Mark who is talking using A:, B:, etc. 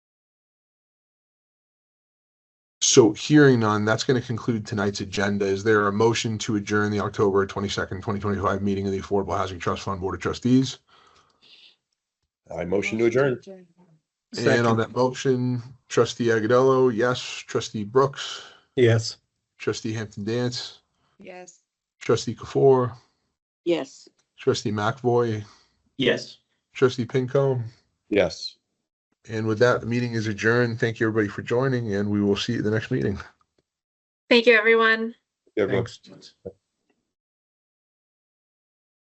A: So hearing none, that's going to conclude tonight's agenda. Is there a motion to adjourn the October 22nd, 2025 meeting of the Affordable Housing Trust Fund Board of Trustees?
B: I motion to adjourn.
A: And on that motion, trustee Agudelo, yes. Trustee Brooks,
C: Yes.
A: trustee Hampton Dance,
D: Yes.
A: trustee Kafour,
D: Yes.
A: trustee McVoy,
E: Yes.
A: trustee Pincombe.
B: Yes.
A: And with that, the meeting is adjourned. Thank you, everybody, for joining, and we will see you at the next meeting.
F: Thank you, everyone.
B: Everyone.
C: Thanks.